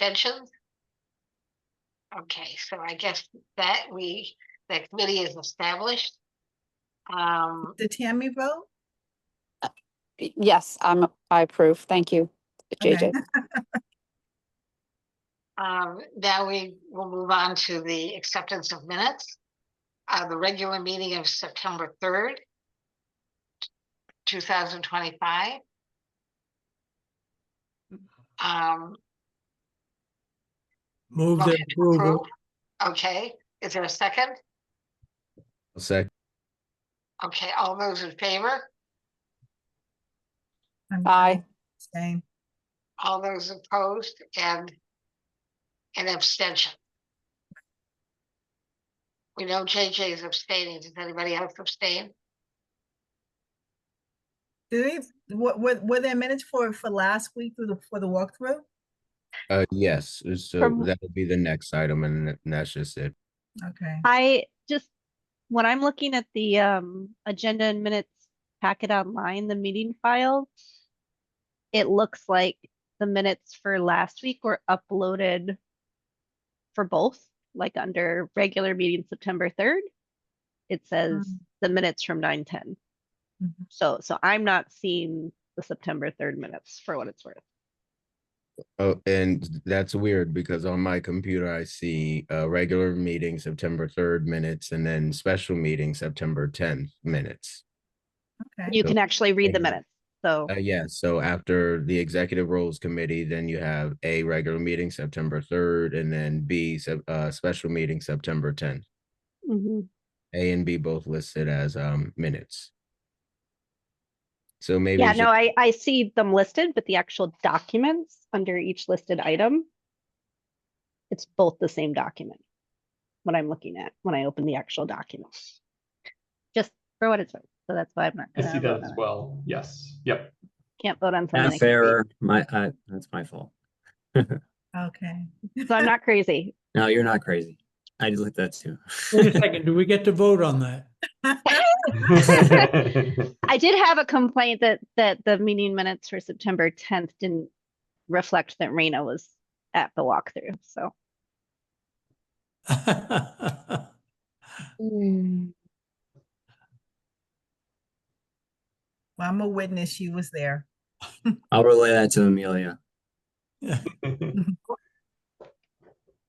Abstentions? Okay, so I guess that we, that committee is established. Um, Did Tammy vote? Y- Yes, I'm, I approve. Thank you, Okay. JJ. um, now we will move on to the acceptance of minutes. Uh, the regular meeting of September third. Two thousand twenty-five. Um, Move the Motion approval. approved. Okay, is there a second? I'll sec, Okay, all those in favor? I'm Aye. Same. All those opposed and an abstention. We know JJ is abstaining. Does anybody else abstain? Do we, what, were, were there minutes for, for last week through the, for the walkthrough? uh, yes, so From- that would be the next item and th- and that's just it. Okay, I just, when I'm looking at the um agenda and minutes packet online, the meeting file. It looks like the minutes for last week were uploaded. For both, like under regular meeting September third. It says Mm. the minutes from nine ten. Mhm. So, so I'm not seeing the September third minutes for what it's worth. Oh, and that's weird because on my computer, I see, uh, regular meeting September third minutes and then special meeting September tenth minutes. okay. You can actually read the Thank you. minutes, so. Uh, yes, so after the Executive Roles Committee, then you have A, regular meeting September third, and then B, sep- uh, special meeting September tenth. Mhm. A and B both listed as, um, minutes. So maybe. Yeah, it's no, just- I, I see them listed, but the actual documents under each listed item. It's both the same document. What I'm looking at when I open the actual document. Just for what it's worth. So that's why I'm not. I gonna see vote that on as it. well. Yes, yep. Can't vote on something. I Math can't read. error, my, uh, that's my fault. Okay. So I'm not crazy. No, you're not crazy. I did that too. Wait a second, do we get to vote on that? I did have a complaint that, that the meeting minutes for September tenth didn't reflect that Rena was at the walkthrough, so. Well, I'm a witness, she was there. I'll relay that to Amelia.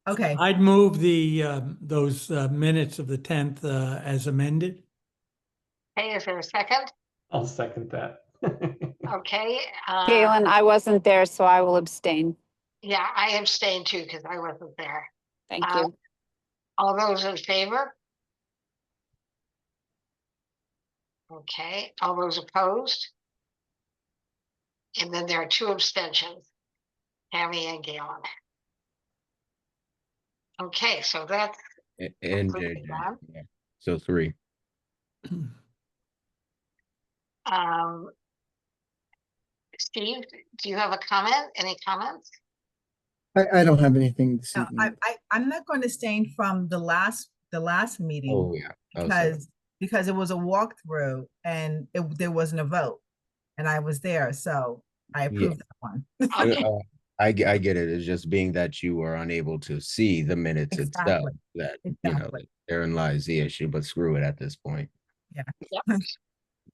Okay, I'd move the, um, those uh, minutes of the tenth uh, as amended. Hey, is there a second? I'll second that. Okay. uh, Galen, I wasn't there, so I will abstain. Yeah, I abstained too because I wasn't there. Thank Uh, you. All those in favor? Okay, all those opposed? And then there are two abstentions, Tammy and Galen. Okay, so that's A- And Approve JJ, that. yeah. So three. Um. Steve, do you have a comment? Any comments? I, I don't have anything this so I, evening. I, I'm not going to abstain from the last, the last meeting Oh, yeah. I was like- because, because it was a walkthrough and it, there wasn't a vote. And I was there, so I approve that one. Uh, Okay, uh, I, ge- I get it. It's just being that you were unable to see the minutes itself, Exactly. that, you know, Exactly. therein lies the issue, but screw it at this point.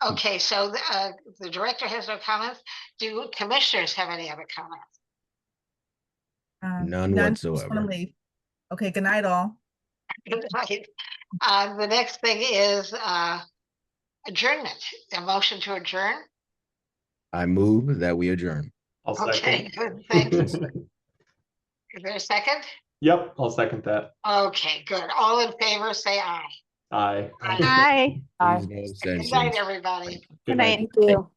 okay, so the, uh, the director has no comments. Do commissioners have any other comments? Um, None just wanna whatsoever. leave. Okay, good night all. Good night. Uh, the next thing is, uh. Adjournment, a motion to adjourn. I move that we adjourn. I'll Okay, second. good, thanks. Is there a second? Yep, I'll second that. Okay, good. All in favor, say aye. Aye. Aye. Hi, Aye. Please no Good abstentions. night, everybody. good Good night. night. Thank you.